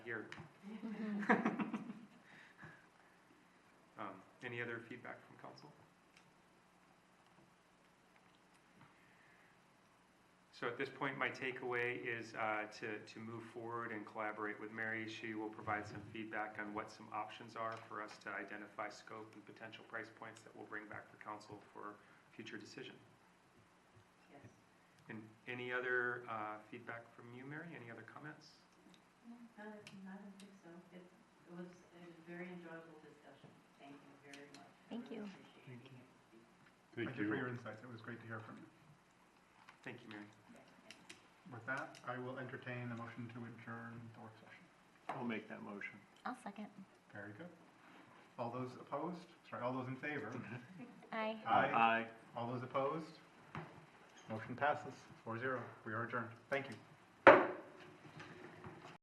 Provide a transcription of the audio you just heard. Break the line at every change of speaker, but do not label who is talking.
here.
Mm-hmm.
Um, any other feedback from council? So at this point, my takeaway is uh, to, to move forward and collaborate with Mary. She will provide some feedback on what some options are for us to identify scope and potential price points that we'll bring back to council for future decision.
Yes.
And any other uh, feedback from you, Mary? Any other comments?
No, I don't think so. It it was a very enjoyable discussion. Thank you very much. I
Thank
really
you.
appreciate
Thank
being here.
Thank you for your insights. It was great to hear from you.
Thank you, Mary.
Yeah, thank you.
With that, I will entertain a motion to adjourn the work session.
I'll make that motion.
I'll second.
Very good. All those opposed? Sorry, all those in favor?
Aye.
Aye.
Aye.
All those opposed? Motion passes, four zero. We are adjourned. Thank you.